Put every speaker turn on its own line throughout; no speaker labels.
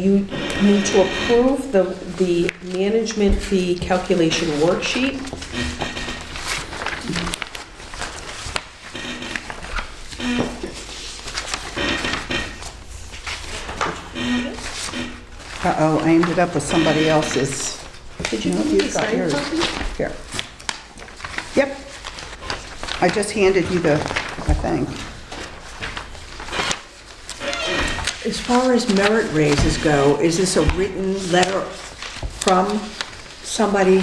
You need to approve the, the management fee calculation worksheet.
Uh-oh, I ended up with somebody else's.
Did you
No,
need to
you've got
sign
yours.
something?
Here. Yep. I just handed you the, I think.
As far as merit raises go, is this a written letter from somebody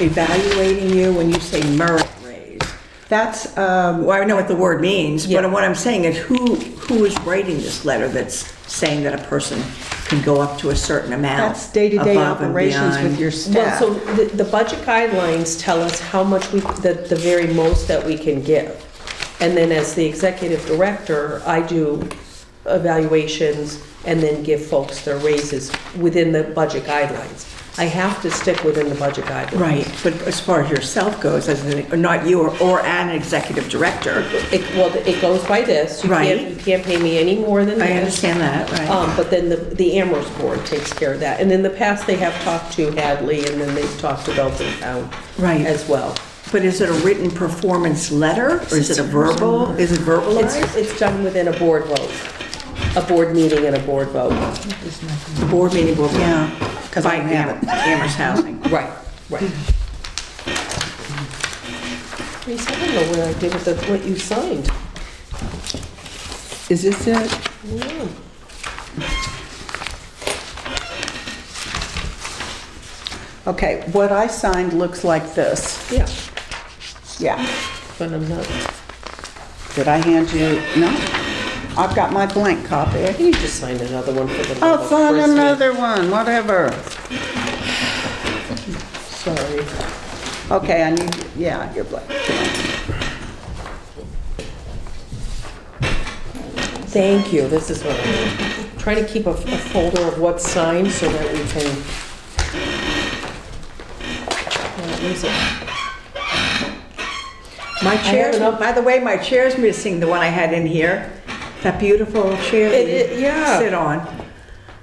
evaluating you when you say merit raise? That's,
uh,
um, well, I know what the word means, but
Yeah.
what I'm saying is who, who is writing this letter that's saying that a person can go up to a certain amount?
That's day-to-day
above and
operations with
beyond?
your
Well,
staff.
so the, the budget guidelines tell us how much we, the, the very most that we can give. And then as the executive director, I do evaluations and then give folks their raises within the budget guidelines. I have to stick within the budget guidelines.
Right, but as far as yourself goes, as an, not you or, or an executive director,
It, well, it goes by this. You
Right.
can't, you can't pay me any more than this.
I understand that, right?
Um, but then the, the Amherst board takes care of that. And in the past, they have talked to Hadley and then they've talked to Belton Town.
Right.
As well.
But is it a written performance letter, or is it a verbal, is it
It's,
verbalized?
it's done within a board vote, a board meeting and a board vote.
The board meeting will be
Yeah, 'cause I
by
don't have
Am- Amherst Housing.
Right, right. Reese, I don't know what I did with the, what you signed.
Is this it?
Yeah.
Okay, what I signed looks like this.
Yeah,
Yeah.
but I'm not,
Did I hand you? No. I've got my blank copy.
you just signed another one for the.
Oh,
love
I'll
of
sign
Christmas.
another one, whatever.
Sorry.
Okay, I need, yeah, your blank.
Thank you, this is what I'm, trying to keep a a folder of what's signed so that we can. Well, where's it?
My chair's,
enough-
by the way, my chair's missing, the one I had in here, that beautiful chair
It- it-
that you
yeah.
sit on.
I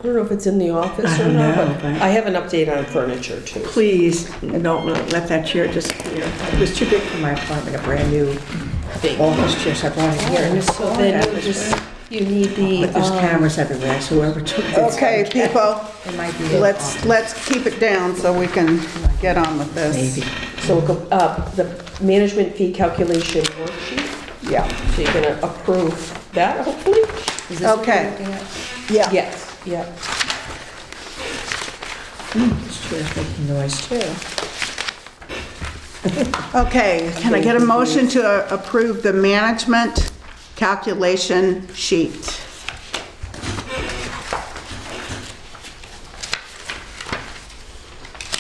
don't know if it's in the office
I
or
don't
not,
know,
but
but-
I have an update on furniture too.
Please, don't let that chair disappear. It was too big for my apartment, a brand-new
Thank you.
office chair, so Oh, I brought it here.
Oh,
and it's
So
all
then
that
you
was-
just, you need the.
But there's
um,
cameras everywhere, so whoever took this.
Okay, people,
It might be in
let's, let's keep it down so we can get on with this.
Maybe.
So go up, the management fee calculation worksheet,
Yeah,
so you're gonna approve that hopefully?
okay. Yeah,
Yes, yeah.
This chair's making noise too.
okay. Can I get a motion to uh, approve the management calculation sheet?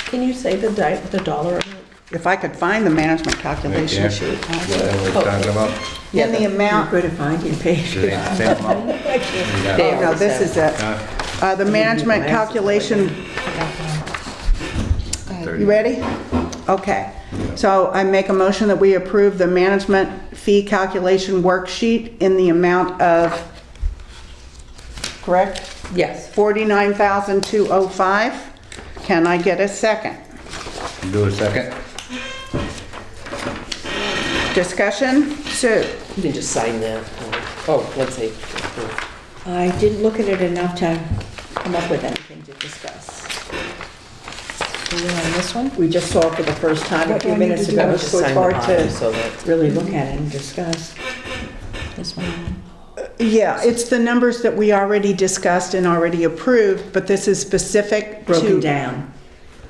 Can you say the di, the dollar amount?
If I could find the management
Yeah.
calculation sheet. I would.
What we're talking about,
In the amount, oh,
Good at finding
is it
pages.
the same amount?
There.
oh, no, this is it. Uh, The management calculation You ready? Okay. So I make a motion that we approve the management fee calculation worksheet in the amount of, correct?
Yes.
$49,205. Can I get a second?
Do a second?
Discussion? Sue?
You can just sign that. Oh, let's see.
I didn't look at it enough to come up with anything to discuss. Are we on this one?
We just saw it for the first time a
What do
few
I need to
minutes
do?
ago,
Just
so it's
sign the
hard
bottom
to
so that.
really look at it and discuss.
This one?
Yeah, it's the numbers that we already discussed and already approved, but this is specific to...
Broken down.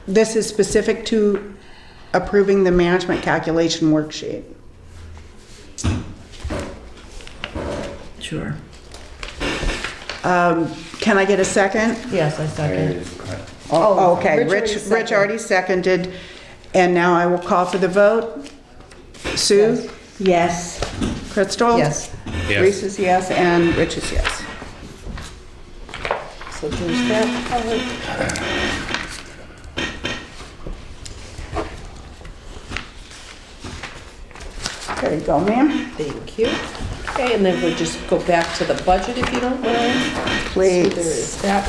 This is specific to approving the management calculation worksheet.
Sure.
Um, Can I get a second?
Yes, I
Oh, Okay,
Rich already
Rich,
seconded.
Rich already seconded, and now I will call for the vote. Sue?
Yes.
Crystal?
Yes.
Yes.
Reese is yes, and Rich is yes.
So there's that.
There you go, ma'am.
Thank you. Okay, and then we'll just go back to the budget if you don't mind. So there
Please.
is that